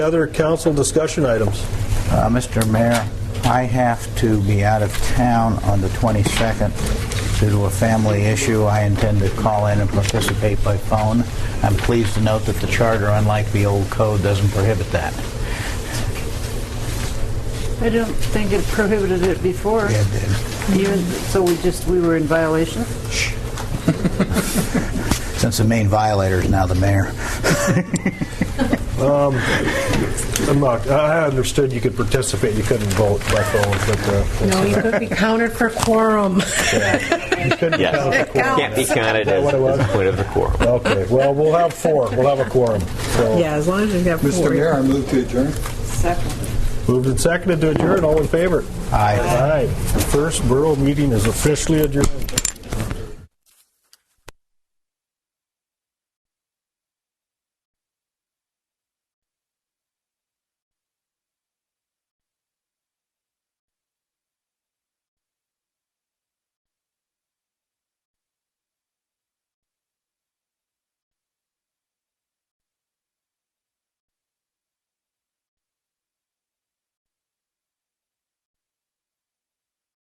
Other council discussion items? Uh, Mr. Mayor, I have to be out of town on the 22nd due to a family issue. I intend to call in and participate by phone. I'm pleased to note that the charter, unlike the old code, doesn't prohibit that. I don't think it prohibited it before. Yeah, it did. Even, so we just, we were in violation? Since the main violator is now the mayor. I'm not, I I understood you could participate, you couldn't vote by phone, but uh, No, you could be counted for quorum. you couldn't count the Yes. quorum. Can't be counted that as what it was? as a point of the quorum. Okay, well, we'll have four, we'll have a quorum. So Yeah, as long as you've got four. Mr. Mayor, I move to adjourn. Second. Moved and seconded to adjourn, all in favor? Aye. Aye. The first borough meeting is officially adjourned.